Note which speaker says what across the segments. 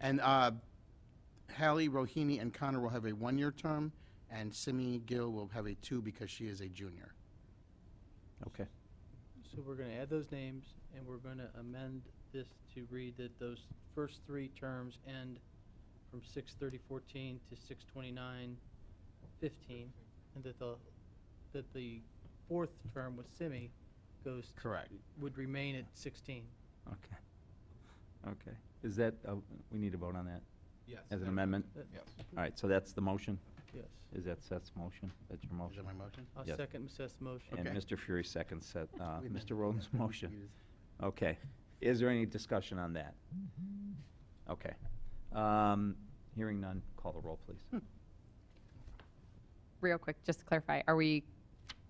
Speaker 1: And uh, Hallie Rohini and Connor will have a one-year term, and Simi Gill will have a two because she is a junior.
Speaker 2: Okay.
Speaker 3: So we're gonna add those names, and we're gonna amend this to read that those first three terms end from six thirty fourteen to six twenty-nine fifteen, and that the, that the fourth term with Simi goes,
Speaker 1: Correct.
Speaker 3: would remain at sixteen.
Speaker 2: Okay. Okay. Is that, uh, we need to vote on that
Speaker 4: Yes.
Speaker 2: as an amendment?
Speaker 3: That-
Speaker 4: Yes.
Speaker 2: All right, so that's the motion?
Speaker 3: Yes.
Speaker 2: Is that Seth's motion? That's your
Speaker 1: Is that
Speaker 2: motion?
Speaker 1: my motion?
Speaker 3: I'll
Speaker 2: Yes.
Speaker 3: second Ms. Seth's motion.
Speaker 2: And
Speaker 1: Okay.
Speaker 2: Mr. Fury seconds Seth, uh,
Speaker 1: We
Speaker 2: Mr.
Speaker 1: amended
Speaker 2: Roden's
Speaker 1: that.
Speaker 2: motion. Okay. Is there any discussion on that?
Speaker 1: Mm-hmm.
Speaker 2: Okay. Um, Hearing none, call the roll, please.
Speaker 5: Real quick, just to clarify, are we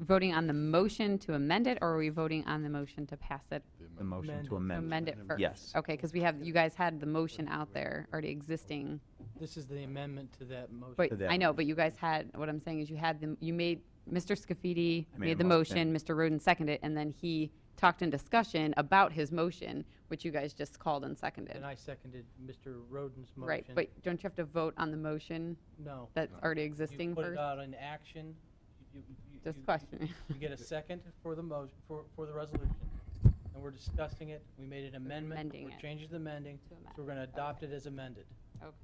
Speaker 5: voting on the motion to amend it, or are we voting on the motion to pass it?
Speaker 2: The motion to
Speaker 5: to
Speaker 2: amend.
Speaker 5: Amend it
Speaker 1: Amendment.
Speaker 5: first?
Speaker 2: Yes.
Speaker 5: Okay, because we have, you guys had the motion out there, already existing.
Speaker 3: This is the amendment to that motion.
Speaker 5: But,
Speaker 2: To that
Speaker 5: I know, but you guys had, what I'm saying is you had the, you made, Mr. Scafidi
Speaker 2: I made a
Speaker 5: made the
Speaker 2: motion.
Speaker 5: motion, Mr. Roden seconded, it, and then he talked in discussion about his motion, which you guys just called and seconded.
Speaker 3: And I seconded Mr. Roden's motion.
Speaker 5: Right, but don't you have to vote on the motion
Speaker 3: No.
Speaker 5: that's already
Speaker 3: You
Speaker 5: existing
Speaker 3: put it
Speaker 5: first?
Speaker 3: out in action. You- you- you-
Speaker 5: Just
Speaker 3: you-
Speaker 5: questioning.
Speaker 3: You get a second for the motion, for, for the resolution, and we're discussing it. We made an amendment.
Speaker 5: amending
Speaker 3: We're
Speaker 5: it.
Speaker 3: changing the amending,
Speaker 5: To
Speaker 3: so
Speaker 5: amend.
Speaker 3: we're going to adopt it as amended.
Speaker 5: Okay.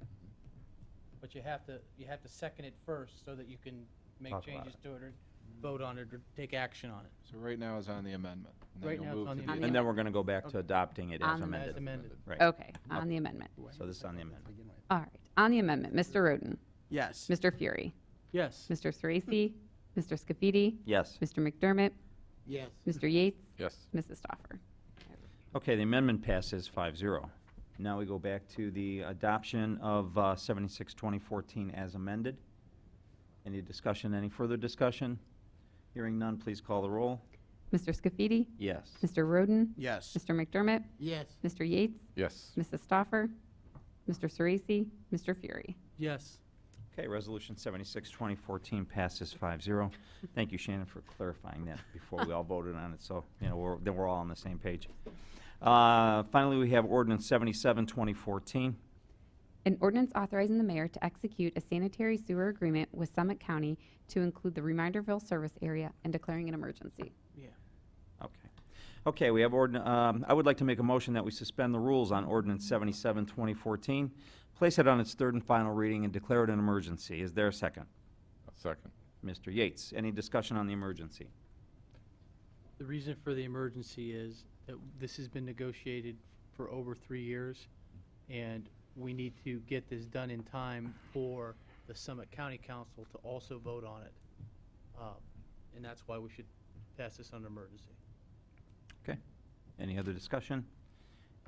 Speaker 3: But you have to, you have to second it first so that you can make
Speaker 2: Talk about
Speaker 3: changes to it or vote on it or take action on it.
Speaker 4: So right now is on the amendment. and then
Speaker 3: Right
Speaker 4: you'll
Speaker 3: now it's
Speaker 4: move
Speaker 3: on
Speaker 4: to
Speaker 3: the
Speaker 5: amendment.
Speaker 2: And then we're going to go back to
Speaker 3: Okay.
Speaker 2: adopting it
Speaker 5: On
Speaker 2: as
Speaker 5: the-
Speaker 4: As
Speaker 2: amended.
Speaker 3: amended.
Speaker 4: amended.
Speaker 2: Right.
Speaker 5: Okay, on the amendment.
Speaker 2: So this is on the amendment.
Speaker 5: All right, on the amendment, Mr. Roden,
Speaker 1: Yes.
Speaker 5: Mr. Fury,
Speaker 3: Yes.
Speaker 5: Mr. Sorese, Mr. Scafidi,
Speaker 2: Yes.
Speaker 5: Mr. McDermott,
Speaker 1: Yes.
Speaker 5: Mr. Yates,
Speaker 4: Yes.
Speaker 5: Mrs. Stoffer.
Speaker 2: Okay, the amendment passes 5-0. Now we go back to the adoption of uh, 76, 2014 as amended. Any discussion, any further discussion? Hearing none, please call the roll.
Speaker 5: Mr. Scafidi,
Speaker 2: Yes.
Speaker 5: Mr. Roden,
Speaker 1: Yes.
Speaker 5: Mr. McDermott,
Speaker 1: Yes.
Speaker 5: Mr. Yates,
Speaker 4: Yes.
Speaker 5: Mrs. Stoffer, Mr. Sorese, Mr. Fury.
Speaker 3: Yes.
Speaker 2: Okay, Resolution 76, 2014 passes 5-0. Thank you, Shannon, for clarifying that before we all voted on it, so, you know, we're- then we're all on the same page. Uh, Finally, we have ordinance 77, 2014.
Speaker 5: An ordinance authorizing the mayor to execute a sanitary sewer agreement with Summit County to include the Reminderville service area and declaring an emergency.
Speaker 3: Yeah.
Speaker 2: Okay. Okay, we have ordin, um, I would like to make a motion that we suspend the rules on ordinance 77, 2014, place it on its third and final reading, and declare it an emergency. Is there a second?
Speaker 4: Second.
Speaker 2: Mr. Yates, any discussion on the emergency?
Speaker 3: The reason for the emergency is that this has been negotiated for over three years, and we need to get this done in time for the Summit County Council to also vote on it. Um, And that's why we should pass this under emergency.
Speaker 2: Okay. Any other discussion?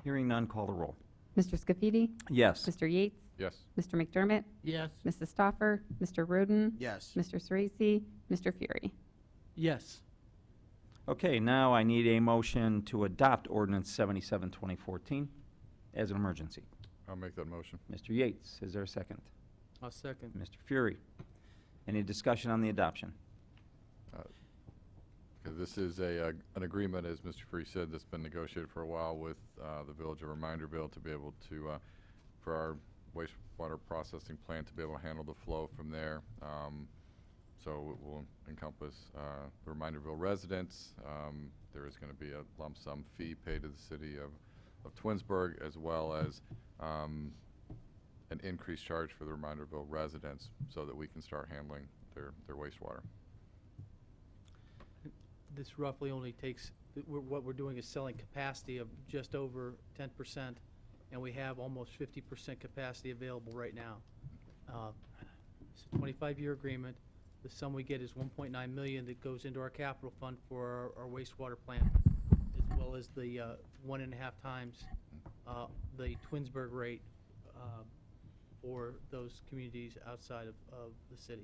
Speaker 2: Hearing none, call the roll.
Speaker 5: Mr. Scafidi,
Speaker 2: Yes.
Speaker 5: Mr. Yates,
Speaker 4: Yes.
Speaker 5: Mr. McDermott,
Speaker 3: Yes.
Speaker 5: Mrs. Stoffer, Mr. Roden,
Speaker 1: Yes.
Speaker 5: Mr. Sorese, Mr. Fury.
Speaker 3: Yes.
Speaker 2: Okay, now I need a motion to adopt ordinance 77, 2014 as an emergency.
Speaker 4: I'll make that motion.
Speaker 2: Mr. Yates, is there a second?
Speaker 3: I'll second.
Speaker 2: Mr. Fury, any discussion on the adoption?
Speaker 4: Okay, This is a, uh, an agreement, as Mr. Free said, that's been negotiated for a while with uh, the Village of Reminderville to be able to, uh, for our wastewater processing plant to be able to handle the flow from there. Um, So it will encompass uh, the Reminderville residents. Um, There is going to be a lump sum fee paid to the city of, of Twinsburg, as well as um, an increased charge for the Reminderville residents, so that we can start handling their, their wastewater.
Speaker 3: This roughly only takes, th- we're- what we're doing is selling capacity of just over ten percent, and we have almost fifty percent capacity available right now. Uh, It's a twenty-five-year agreement. The sum we get is one point nine million that goes into our capital fund for our our wastewater plant, as well as the uh, one and a half times uh, the Twinsburg rate uh, for those communities outside of, of the city.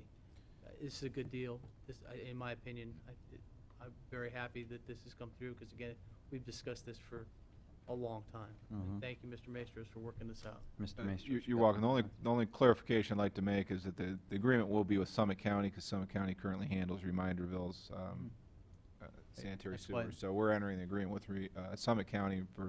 Speaker 3: Uh, This is a good deal. This, I- in my opinion, I, it- I'm very happy that this has come through, because again, we've discussed this for a long time.
Speaker 2: Mhm.
Speaker 3: And Thank you, Mr. Maestros, for working this out.
Speaker 2: Mr.
Speaker 6: Uh,
Speaker 2: Maestros?
Speaker 6: you-
Speaker 2: you
Speaker 6: You're
Speaker 2: got
Speaker 6: welcome. The only,
Speaker 2: one?
Speaker 6: the only clarification I'd like to make is that the, the agreement will be with Summit County, because Summit County currently handles Reminderville's um, uh, sanitary
Speaker 3: That's why-
Speaker 6: sewer. So we're entering the agreement with Re- uh, Summit County for